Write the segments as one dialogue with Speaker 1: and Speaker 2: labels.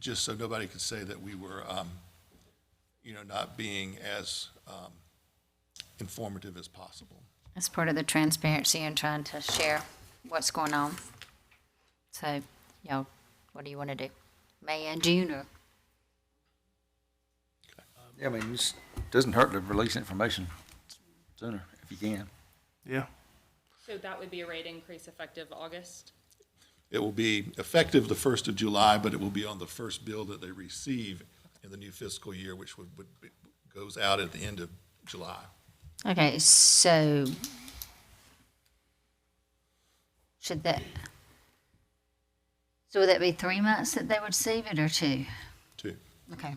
Speaker 1: just so nobody could say that we were, um, you know, not being as um, informative as possible.
Speaker 2: That's part of the transparency and trying to share what's going on. So, you know, what do you want to do? May and June or?
Speaker 3: Yeah, I mean, it doesn't hurt to release information sooner if you can.
Speaker 4: Yeah.
Speaker 5: So that would be a rate increase effective August?
Speaker 1: It will be effective the 1st of July, but it will be on the first bill that they receive in the new fiscal year, which would, would- goes out at the end of July.
Speaker 2: Okay, so should that, so would that be three months that they would receive it or two?
Speaker 1: Two.
Speaker 2: Okay.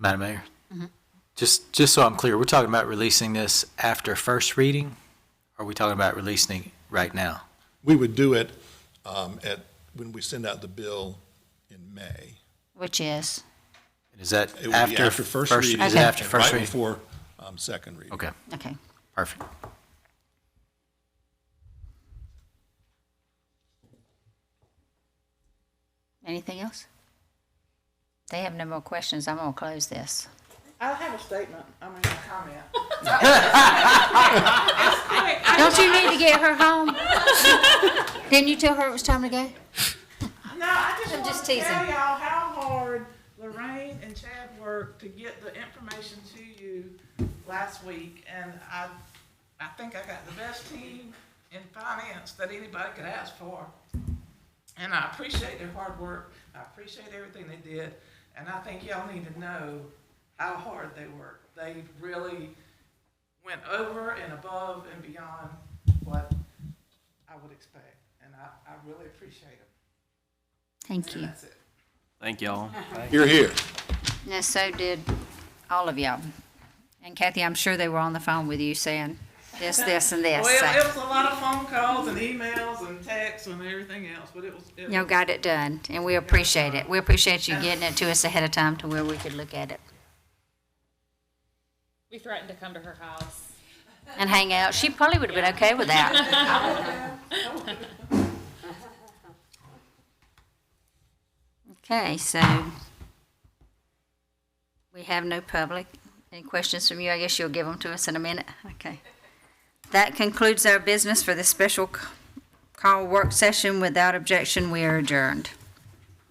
Speaker 6: Madam Mayor, just, just so I'm clear, we're talking about releasing this after first reading? Or are we talking about releasing it right now?
Speaker 1: We would do it um, at, when we send out the bill in May.
Speaker 2: Which is,
Speaker 6: Is that
Speaker 1: It would be
Speaker 6: after?
Speaker 1: after first reading.
Speaker 6: Is it after
Speaker 1: and
Speaker 6: first
Speaker 1: Right
Speaker 6: reading?
Speaker 1: before um, second reading.
Speaker 6: Okay,
Speaker 2: okay.
Speaker 6: perfect.
Speaker 2: Anything else? They have no more questions. I'm gonna close this.
Speaker 7: I have a statement, I mean, a comment.
Speaker 2: Don't you need to get her home? Didn't you tell her it was time to go?
Speaker 7: No, I just
Speaker 2: I'm
Speaker 7: want
Speaker 2: just
Speaker 7: to tell
Speaker 2: teasing.
Speaker 7: y'all how hard Lorraine and Chad worked to get the information to you last week. And I, I think I got the best team in finance that anybody could ask for. And I appreciate their hard work, I appreciate everything they did, and I think y'all need to know how hard they worked. They really went over and above and beyond what I would expect, and I, I really appreciate it.
Speaker 2: Thank you.
Speaker 7: That's it.
Speaker 4: Thank y'all.
Speaker 1: You're here.
Speaker 2: And so did all of y'all. And Kathy, I'm sure they were on the phone with you saying this, this, and this.
Speaker 7: Well,
Speaker 2: so-
Speaker 7: it was a lot of phone calls and emails and texts and everything else, but it was. it
Speaker 2: Y'all
Speaker 7: was-
Speaker 2: got it done, and we appreciate it. We appreciate you getting it to us ahead of time to where we could look at it
Speaker 5: We threatened to come to her house.
Speaker 2: and hang out. She probably would have been okay with that. Okay, so we have no public. Any questions from you? I guess you'll give them to us in a minute. Okay. That concludes our business for this special c- call work session. Without objection, we are adjourned.